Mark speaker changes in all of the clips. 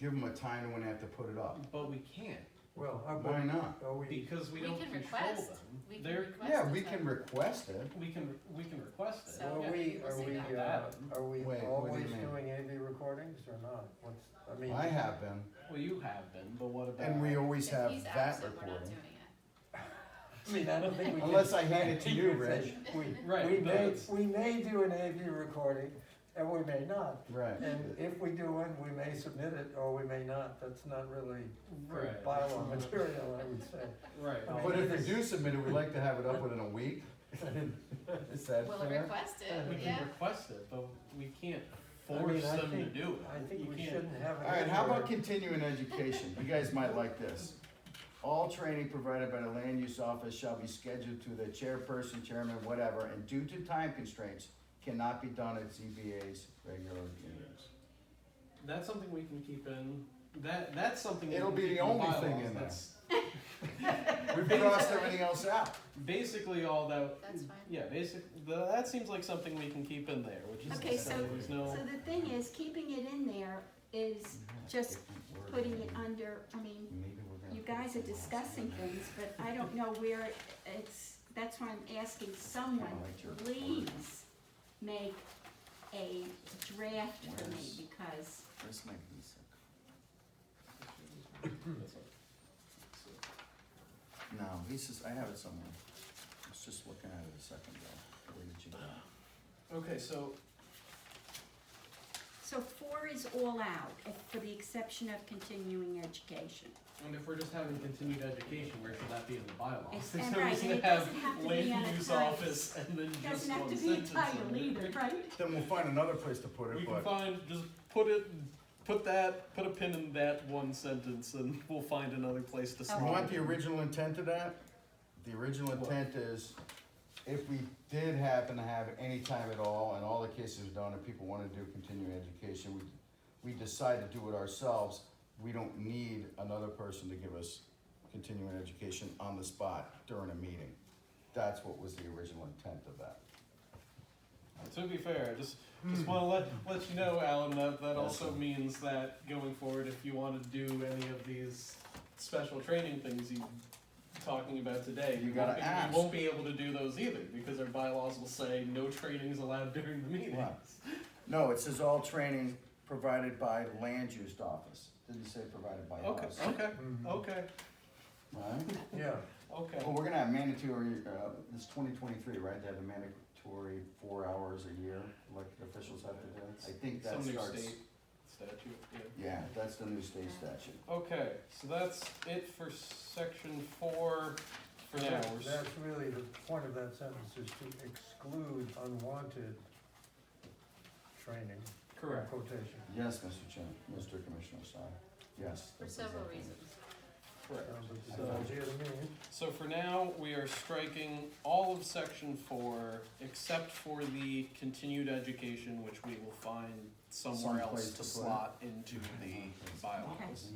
Speaker 1: give them a time when they have to put it up.
Speaker 2: But we can't,
Speaker 3: Well, how
Speaker 1: Why
Speaker 3: about,
Speaker 1: not?
Speaker 3: are we,
Speaker 2: because we
Speaker 4: We
Speaker 2: don't
Speaker 4: can
Speaker 2: control
Speaker 4: request.
Speaker 2: them.
Speaker 4: We can
Speaker 2: They're,
Speaker 4: request.
Speaker 1: Yeah,
Speaker 4: the
Speaker 1: we
Speaker 4: time.
Speaker 1: can request it.
Speaker 2: we can, we can request it.
Speaker 4: So-
Speaker 3: are
Speaker 2: yeah.
Speaker 3: we,
Speaker 4: we'll
Speaker 3: are
Speaker 4: say
Speaker 3: we,
Speaker 4: no.
Speaker 3: uh, are
Speaker 1: Wait,
Speaker 3: we
Speaker 1: what do you
Speaker 3: always
Speaker 1: mean?
Speaker 3: doing AV recordings or not? What's, I mean.
Speaker 1: I have been,
Speaker 2: Well, you have been, but what about?
Speaker 1: and we always
Speaker 4: If
Speaker 1: have
Speaker 4: he's
Speaker 1: that
Speaker 4: absent, we're not
Speaker 1: recording.
Speaker 4: doing it.
Speaker 3: I mean, I don't think we can.
Speaker 1: Unless I hand it to you, Rich.
Speaker 3: We, we
Speaker 2: Right, but
Speaker 3: may,
Speaker 2: it's-
Speaker 3: we may do an AV recording and we may not.
Speaker 1: Right.
Speaker 3: And if we do one, we may submit it or we may not. That's not really good
Speaker 2: Right.
Speaker 3: bylaw material, I would say.
Speaker 2: Right.
Speaker 3: I mean,
Speaker 1: But if you do submit it, we like to have it up within a week. Is that
Speaker 4: We'll
Speaker 1: fair?
Speaker 4: request
Speaker 2: We
Speaker 4: it, yeah.
Speaker 2: can request it, but we can't
Speaker 3: I mean,
Speaker 2: force
Speaker 3: I
Speaker 2: them to
Speaker 3: think-
Speaker 2: do it.
Speaker 3: I
Speaker 2: You
Speaker 3: think we
Speaker 2: can't-
Speaker 3: shouldn't have it.
Speaker 1: All right, how about
Speaker 3: anywhere.
Speaker 1: continuing education? You guys might like this. All training provided by the land use office shall be scheduled to the chairperson, chairman, whatever, and due to time constraints, cannot be done at ZBA's regular meetings.
Speaker 2: That's something we can keep in, that, that's something. we
Speaker 1: It'll
Speaker 2: can
Speaker 1: be
Speaker 2: keep
Speaker 1: the
Speaker 2: in
Speaker 1: only thing
Speaker 2: bylaws.
Speaker 1: in there.
Speaker 2: That's
Speaker 1: We've crossed everything else out.
Speaker 2: Basically all that,
Speaker 4: That's fine.
Speaker 2: yeah, basic, the- that seems like something we can keep in there, which is
Speaker 5: Okay,
Speaker 2: to
Speaker 5: so-
Speaker 2: say there's no,
Speaker 5: So the thing is, keeping it in there is just putting it under, I mean, you guys are discussing things, but I don't know where it's, that's why I'm asking someone, please make a draft for me, because
Speaker 1: Where's my visa?
Speaker 2: Hmm.
Speaker 1: No, Lisa's, I have it somewhere. I was just looking at it a second ago. Where did you go?
Speaker 2: okay, so,
Speaker 5: So four is all out, eh, for the exception of continuing education.
Speaker 2: and if we're just having continued education, where should that be in the bylaws?
Speaker 5: It's-
Speaker 2: There's
Speaker 5: and
Speaker 2: no
Speaker 5: right,
Speaker 2: reason
Speaker 5: and
Speaker 2: to
Speaker 5: it doesn't
Speaker 2: have
Speaker 5: have to be on
Speaker 2: land
Speaker 5: a
Speaker 2: use
Speaker 5: title.
Speaker 2: office and then just
Speaker 5: Doesn't have
Speaker 2: one
Speaker 5: to be a
Speaker 2: sentence
Speaker 5: title
Speaker 2: in it.
Speaker 5: either, right?
Speaker 1: Then we'll find another place to put
Speaker 2: We
Speaker 1: it,
Speaker 2: can
Speaker 1: but
Speaker 2: find, just put it, put that, put a pin in that one sentence and we'll find another place to slot
Speaker 1: you
Speaker 2: it.
Speaker 1: want the original intent of that? The original
Speaker 2: What?
Speaker 1: intent is if we did happen to have any time at all and all the cases are done and people wanna do continuing education, we, we decide to do it ourselves, we don't need another person to give us continuing education on the spot during a meeting. That's what was the original intent of that.
Speaker 2: To be fair, I just just
Speaker 1: Hmm.
Speaker 2: want to let let you know, Alan, that that also
Speaker 1: Awesome.
Speaker 2: means that going forward, if you want to do any of these special training things you talking about today,
Speaker 1: You
Speaker 2: won't
Speaker 1: gotta
Speaker 2: be,
Speaker 1: ask.
Speaker 2: You won't be able to do those either because our bylaws will say no training is allowed during the meetings.
Speaker 1: Right. No, it says all training provided by land use office, didn't say provided by
Speaker 2: Okay.
Speaker 1: us.
Speaker 2: Okay.
Speaker 3: Mhm.
Speaker 2: Okay.
Speaker 1: Right?
Speaker 3: Yeah,
Speaker 2: Okay.
Speaker 1: Well, we're gonna have mandatory, uh, it's twenty twenty-three, right, they have a mandatory four hours a year, elected officials have to do. I think that
Speaker 2: Some new
Speaker 1: starts,
Speaker 2: state statute. Yeah.
Speaker 1: yeah, that's the new state statute.
Speaker 2: Okay. So that's it for section four. For now,
Speaker 3: that's,
Speaker 2: we're s-
Speaker 3: that's really the point of that sentence is to exclude unwanted training,
Speaker 2: correct.
Speaker 3: quotation.
Speaker 1: Yes, Mr. Chairman, Mr. Commissioner, sorry, yes.
Speaker 4: For
Speaker 1: that's
Speaker 4: several
Speaker 1: exactly.
Speaker 4: reasons.
Speaker 2: Correct.
Speaker 3: Sounds like a
Speaker 2: So-
Speaker 3: good idea to me.
Speaker 2: So for now, we are striking all of section four, except for the continued education, which we will find somewhere else
Speaker 1: Someplace
Speaker 2: to
Speaker 1: to put it.
Speaker 2: slot into the bylaws.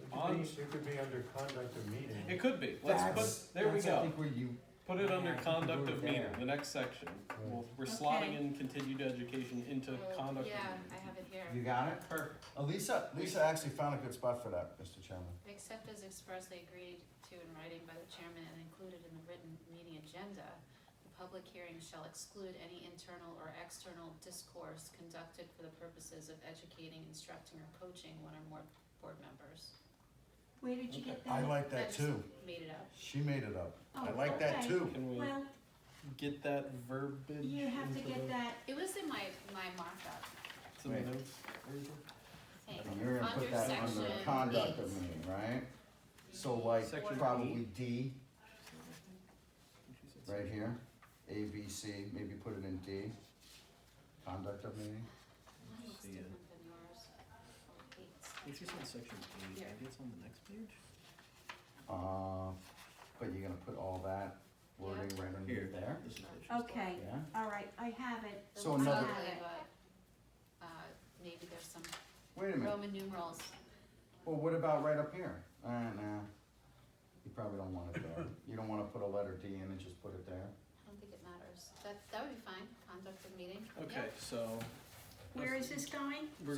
Speaker 3: It
Speaker 2: On-
Speaker 3: could be, it could be under conduct of meeting.
Speaker 2: It could be, let's
Speaker 1: That's-
Speaker 2: put, there we
Speaker 1: that's, I
Speaker 2: go,
Speaker 1: think where you,
Speaker 2: put it under
Speaker 1: Yeah, I think
Speaker 2: conduct
Speaker 1: we're
Speaker 2: of
Speaker 1: there.
Speaker 2: meeting, the next section. We'll- We're slotting
Speaker 5: Okay.
Speaker 2: in continued education into
Speaker 4: Well,
Speaker 2: conduct of
Speaker 4: Yeah, I
Speaker 2: meeting.
Speaker 4: have it here.
Speaker 1: you got it?
Speaker 2: Perfect,
Speaker 1: Uh, Lisa, Lisa actually found a good spot for that, Mr. Chairman.
Speaker 4: Except as expressly agreed to in writing by the chairman and included in the written meeting agenda, the public hearing shall exclude any internal or external discourse conducted for the purposes of educating, instructing, or coaching one or more board members.
Speaker 5: Where did you get
Speaker 1: I
Speaker 5: that?
Speaker 1: like that
Speaker 4: just
Speaker 1: too,
Speaker 4: Made it up.
Speaker 1: she made it up, I
Speaker 5: Oh,
Speaker 1: like that
Speaker 5: okay.
Speaker 1: too.
Speaker 2: can we
Speaker 5: Well,
Speaker 2: get that verbiage
Speaker 5: you have to
Speaker 2: into
Speaker 5: get
Speaker 2: the-
Speaker 5: that
Speaker 4: It was in my, my markup,
Speaker 2: to the
Speaker 1: Wait.
Speaker 2: notes?
Speaker 4: I think.
Speaker 1: And you're gonna put that under
Speaker 4: section
Speaker 1: conduct of
Speaker 4: eight.
Speaker 1: meeting, right? So like
Speaker 2: Section
Speaker 1: probably D,
Speaker 2: She said
Speaker 1: right here, A, B, C, maybe put it in D. Conduct of meeting,
Speaker 4: Mine looks
Speaker 2: See ya.
Speaker 4: different than yours. Oh, eight.
Speaker 2: It's just on section eight, maybe it's on the next page?
Speaker 1: uh, but you're gonna put all that wording right
Speaker 2: Here.
Speaker 1: underneath there,
Speaker 2: This is what she said.
Speaker 5: Okay,
Speaker 1: yeah?
Speaker 5: all right, I have it.
Speaker 4: It
Speaker 1: So
Speaker 4: looks
Speaker 1: another-
Speaker 4: ugly, but, uh, maybe there's some
Speaker 1: Wait a minute,
Speaker 4: Roman numerals.
Speaker 1: well, what about right up here? Uh, nah, you probably don't want it there, you don't wanna put a letter D in and just put it there?
Speaker 4: I don't think it matters. That, that would be fine, conduct of meeting.
Speaker 2: Okay, so.
Speaker 5: Where is this going?